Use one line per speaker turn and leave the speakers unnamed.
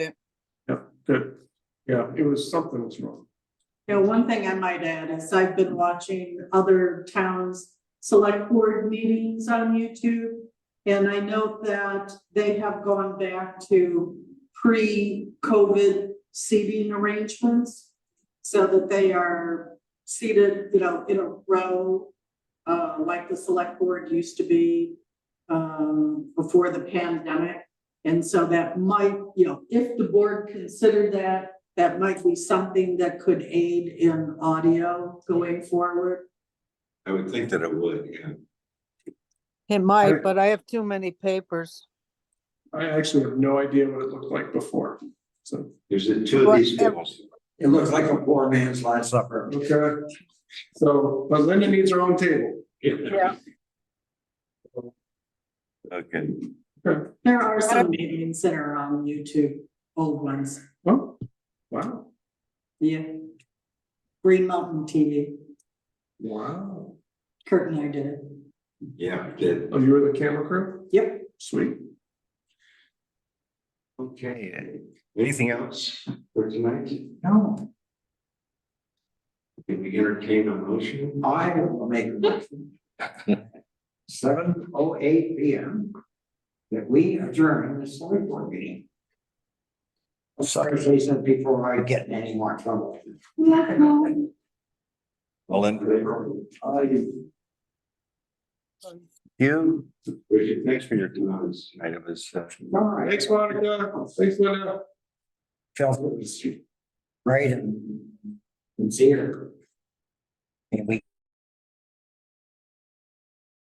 that, yeah, it was, something was wrong.
You know, one thing I might add is I've been watching other towns' select board meetings on YouTube. And I note that they have gone back to pre-COVID seating arrangements. So that they are seated, you know, in a row, uh, like the select board used to be, um, before the pandemic. And so that might, you know, if the board considered that, that might be something that could aid in audio going forward.
I would think that it would, yeah.
It
Alright.
might, but I have too many papers.
I actually have no idea what it looked like before, so.
There's the two of these
Well,
bills.
It looks like a poor man's last supper.
Okay, so, but Linda needs her own table.
Yeah.
Okay,
There are some meetings that are on YouTube, old ones,
Oh, wow,
yeah. Green Mountain TV,
wow.
Kurt and I did it,
yeah, good.
Oh, you were the camera crew?
yep.
Sweet.
Okay, anything else for tonight?
No,
Can we entertain a motion?
I will make a motion. Seven oh eight P M. That we adjourn the select board meeting. I'm Oh, sorry, Jason, before I get in any more trouble.
All in favor?
Uh, you-
You. Richard, thanks for your comments. I was, uh,
all right,
Thanks, Monica. Thanks, Linda.
Chelsea was right and sincere. And we